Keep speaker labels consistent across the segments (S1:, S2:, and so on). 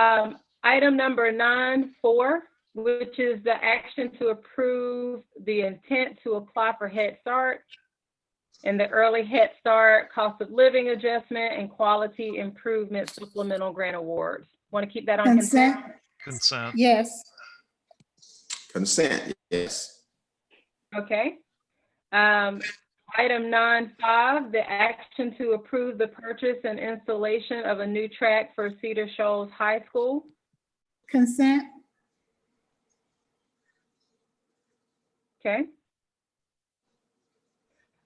S1: Um, Item number nine, four, which is the action to approve the intent to apply for Head Start and the early Head Start cost of living adjustment and quality improvement supplemental grant awards. Want to keep that on consent?
S2: Consent,
S3: Consent,
S2: yes.
S4: Consent, yes.
S1: Okay. Um, item nine five, the action to approve the purchase and installation of a new track for Cedar Shoals High School.
S2: Consent,
S1: Okay.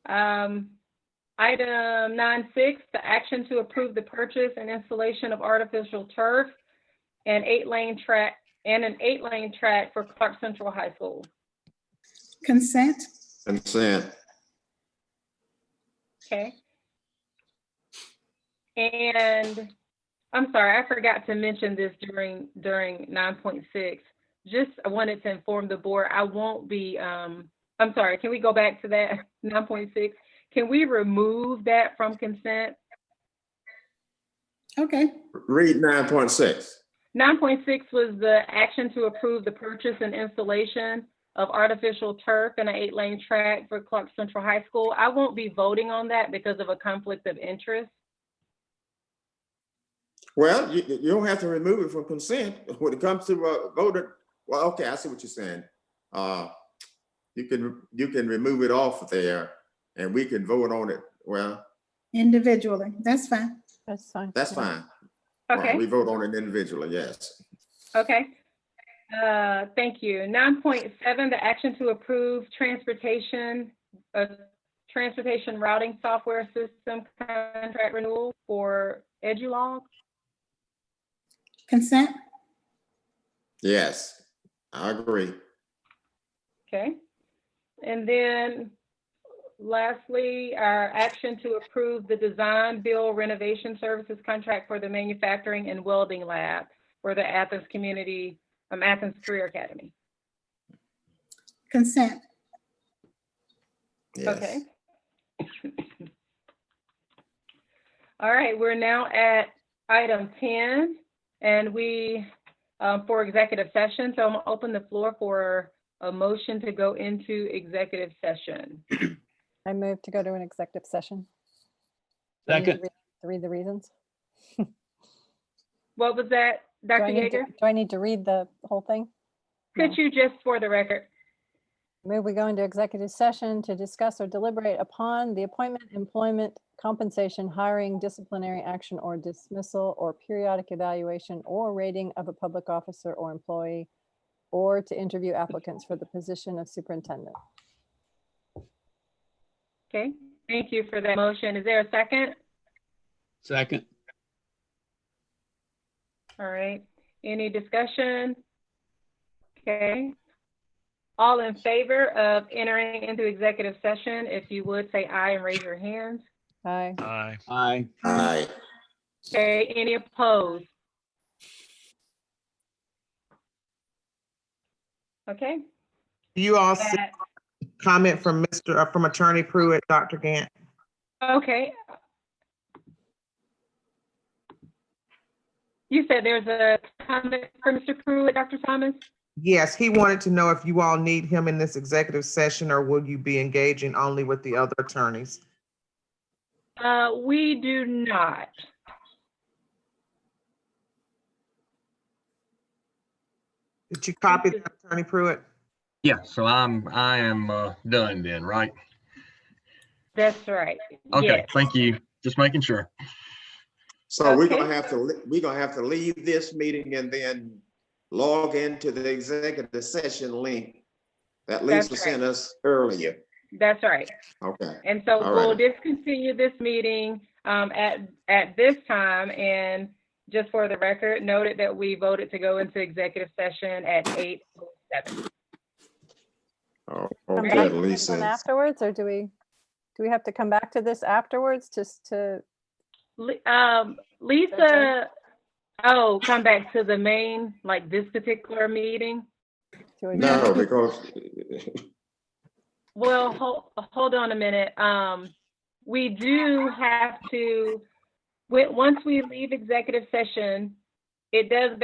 S1: Um, item nine six, the action to approve the purchase and installation of artificial turf and eight-lane track, and an eight-lane track for Clark Central High School.
S2: consent,
S4: Consent,
S1: Okay. And I'm sorry, I forgot to mention this during, during nine point six. Just, I wanted to inform the board, I won't be, um, I'm sorry, can we go back to that, nine point six? Can we remove that from consent?
S2: okay,
S4: read nine point six.
S1: Nine point six was the action to approve the purchase and installation of artificial turf and an eight-lane track for Clark Central High School. I won't be voting on that because of a conflict of interest.
S4: Well, you, you don't have to remove it from consent when it comes to uh, voter. Well, okay, I see what you're saying. Uh, you can, you can remove it off there and we can vote on it. Well,
S2: individually, that's fine.
S5: That's fine.
S4: that's fine.
S1: Mm-hmm. Okay?
S4: We vote on it individually, yes.
S1: Okay. Uh, Thank you. Nine point seven, the action to approve transportation, uh, transportation routing software system contract renewal for Edulog.
S2: Consent,
S4: Yes, I agree.
S1: Okay. And then lastly, our action to approve the design, build, renovation services contract for the manufacturing and welding lab for the Athens Community, um, Athens Career Academy.
S2: consent,
S4: Yes.
S1: Okay. All right, we're now at item 10, and we, uh, for executive session, so I'm gonna open the floor for a motion to go into executive session.
S5: I move to go to an executive session. Do I need to
S6: Second,
S5: read- to Read the reasons.
S1: What was that,
S5: Do
S1: Dr.
S5: I need to-
S1: Yeager?
S5: Do I need to read the whole thing?
S1: Could you just, for the record,
S5: Move we go into executive session to discuss or deliberate upon the appointment, employment, compensation, hiring, disciplinary action or dismissal, or periodic evaluation or rating of a public officer or employee, or to interview applicants for the position of superintendent.
S1: okay? Thank you for that motion. Is there a second?
S6: second,
S1: All right, any discussion? Okay. All in favor of entering into executive session, if you would say aye and raise your hands.
S5: Aye.
S3: aye.
S6: aye.
S4: Aye.
S1: Okay, any opposed? Okay.
S7: You all see
S1: that-
S7: a comment from Mr., uh, from Attorney Pruitt, Dr. Gant.
S1: Okay. You said there's a comment for Mr. Pruitt, Dr. Thomas?
S7: Yes, he wanted to know if you all need him in this executive session or will you be engaging only with the other attorneys?
S1: Uh, we do not.
S7: Did you copy that, Attorney Pruitt?
S8: Yeah, so I'm, I am uh done then, right?
S1: That's right.
S8: Okay,
S1: Yes.
S8: thank you. Just making sure.
S4: So we're gonna
S1: Okay.
S4: have to, le- we're gonna have to leave this meeting and then log into the executive session link that Lisa
S1: That's
S4: sent us earlier.
S1: That's right.
S4: Okay,
S1: And so
S4: All
S1: we'll
S4: right.
S1: discontinue this meeting um, at, at this time. And just for the record, noted that we voted to go into executive session at 8:07.
S4: Oh,
S5: Come
S4: okay,
S5: back to this one
S4: Lisa.
S5: Afterwards, or do we, do we have to come back to this afterwards just to,
S1: Li- um, Lisa, oh, come back to the main, like this particular meeting?
S5: to? adjourn?
S4: No, because
S1: Well, hold, hold on a minute. Um, we do have to, when- once we leave executive session, it does